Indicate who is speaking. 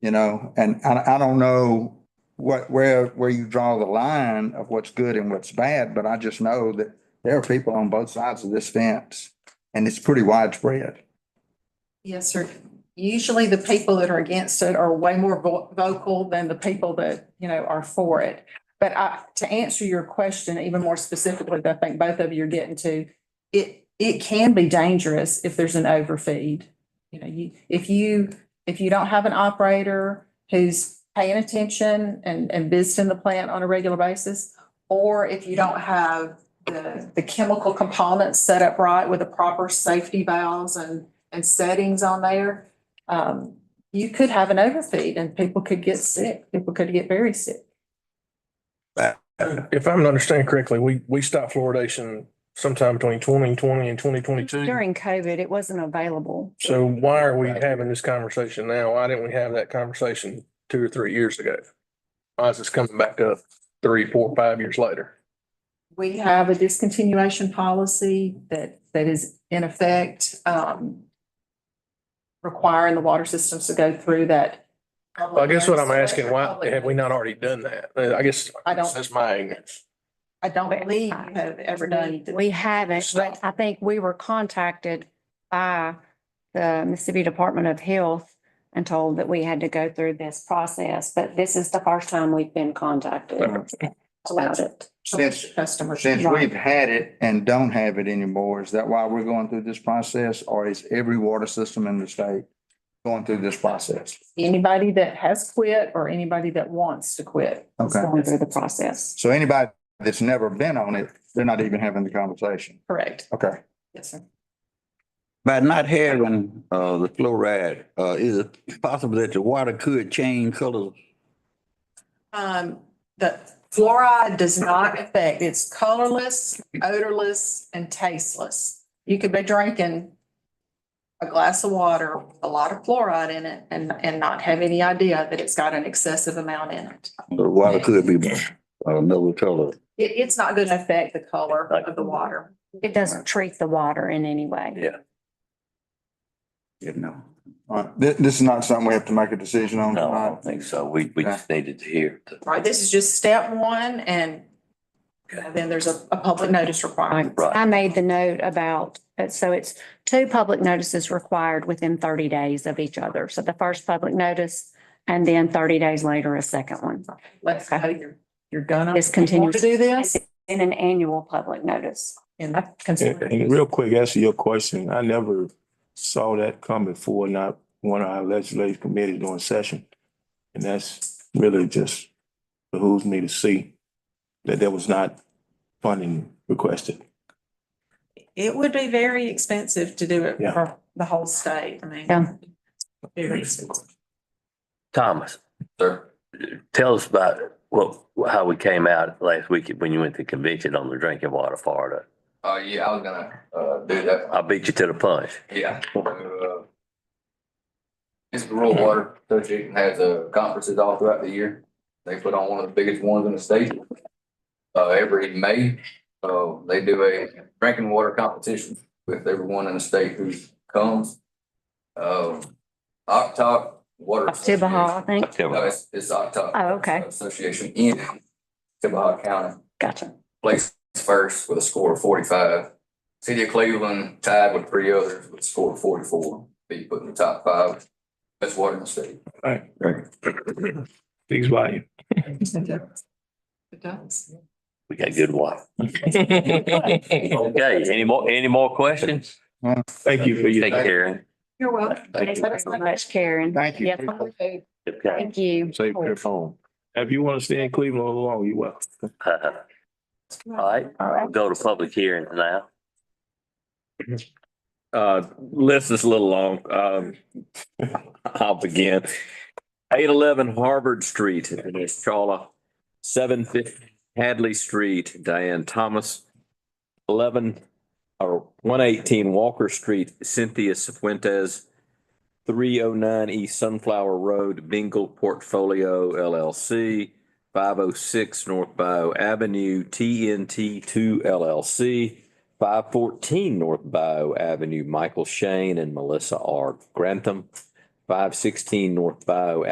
Speaker 1: You know, and I, I don't know what, where, where you draw the line of what's good and what's bad, but I just know that there are people on both sides of this fence and it's pretty widespread.
Speaker 2: Yes, sir. Usually the people that are against it are way more vo- vocal than the people that, you know, are for it. But I, to answer your question even more specifically, that I think both of you are getting to, it, it can be dangerous if there's an overfeed. You know, you, if you, if you don't have an operator who's paying attention and, and visiting the plant on a regular basis, or if you don't have the, the chemical components set up right with the proper safety valves and and settings on there, um, you could have an overfeed and people could get sick. People could get very sick.
Speaker 3: If I'm understanding correctly, we, we stopped fluoridation sometime between twenty twenty and twenty twenty-two.
Speaker 4: During COVID, it wasn't available.
Speaker 3: So why are we having this conversation now? Why didn't we have that conversation two or three years ago? Why is this coming back up three, four, five years later?
Speaker 2: We have a discontinuation policy that, that is in effect, um, requiring the water systems to go through that.
Speaker 3: Well, I guess what I'm asking, why have we not already done that? Uh, I guess
Speaker 2: I don't-
Speaker 3: that's my ignorance.
Speaker 2: I don't believe you have ever done.
Speaker 4: We- We haven't, but
Speaker 2: Stop.
Speaker 4: I think we were contacted by the Mississippi Department of Health and told that we had to go through this process, but this is the first time we've been contacted about it.
Speaker 1: Since,
Speaker 2: Customers.
Speaker 1: since we've had it and don't have it anymore, is that why we're going through this process? Or is every water system in the state going through this process?
Speaker 2: Anybody that has quit or anybody that wants to quit.
Speaker 4: It's
Speaker 1: Okay,
Speaker 4: Going through the process.
Speaker 1: so anybody that's never been on it, they're not even having the conversation.
Speaker 2: Correct.
Speaker 1: Okay.
Speaker 2: Yes, sir.
Speaker 5: By not having uh the fluoride, uh is it possible that the water could change colors?
Speaker 2: Um, the fluoride does not affect, it's colorless, odorless, and tasteless. You could be drinking a glass of water, with a lot of fluoride in it, and, and not have any idea that it's got an excessive amount in it.
Speaker 5: The water could be uh, another color.
Speaker 2: It, it's not gonna affect the color of the water.
Speaker 4: It doesn't treat the water in any way.
Speaker 5: You know,
Speaker 1: All right, this, this is not something we have to make a decision on
Speaker 6: No, I
Speaker 1: tonight.
Speaker 6: don't think so. We, we just needed to hear. the-
Speaker 2: Right, this is just step one, and you know, then there's a, a public notice requirement.
Speaker 6: Right.
Speaker 4: I made the note about, uh, so it's two public notices required within thirty days of each other. So the first public notice and then thirty days later, a second one.
Speaker 2: Let's know you're, you're gonna.
Speaker 4: Discontinue.
Speaker 2: want To do this,
Speaker 4: In an annual public notice.
Speaker 2: and that's considered.
Speaker 7: And real quick, answer your question. I never saw that come before, not one of our legislative committees during session. And that's really just behooves me to see that there was not funding requested.
Speaker 2: It would be very expensive to do it
Speaker 7: Yeah.
Speaker 2: for the whole state, I mean.
Speaker 4: Yeah.
Speaker 2: Very expensive.
Speaker 6: Thomas,
Speaker 8: Sir,
Speaker 6: tell us about what, how we came out last week when you went to convention on the drinking water Florida.
Speaker 8: uh, yeah, I was gonna, uh, do that,
Speaker 6: I beat you to the punch.
Speaker 8: yeah. Uh, Mississippi Rural Water Association has, uh, conferences all throughout the year. They put on one of the biggest ones in the state. Uh, every May, uh, they do a drinking water competition with everyone in the state who comes. Uh, Octop Water.
Speaker 4: Tibahaw, I think.
Speaker 8: No, it's, it's Octop.
Speaker 4: Oh, okay.
Speaker 8: Association in Tibahaw County.
Speaker 4: Gotcha.
Speaker 8: placed first with a score of forty-five. City of Cleveland tied with three others with a score of forty-four, be put in the top five. Best water in the state.
Speaker 7: Please volume.
Speaker 2: It does.
Speaker 6: We got good water. Okay, any more, any more questions?
Speaker 7: Thank you for your.
Speaker 6: Take care.
Speaker 2: You're welcome.
Speaker 6: Thank
Speaker 4: Thanks
Speaker 6: you.
Speaker 4: very much, Karen.
Speaker 1: Thank you.
Speaker 4: Yes,
Speaker 6: Okay.
Speaker 4: Thank you.
Speaker 7: Save your phone. If you want to stay in Cleveland all along, you're welcome.
Speaker 6: Uh, All right, I'll go to public hearing now.
Speaker 9: Uh, list is a little long. Um, I'll begin. Eight eleven Harvard Street, Dinesh Chawla. Seven fifty Hadley Street, Diane Thomas. Eleven or one eighteen Walker Street, Cynthia Fuentes. Three oh nine East Sunflower Road, Bingle Portfolio LLC. Five oh six North Bio Avenue, TNT two LLC. Five fourteen North Bio Avenue, Michael Shane and Melissa R. Grantham. Five sixteen North Bio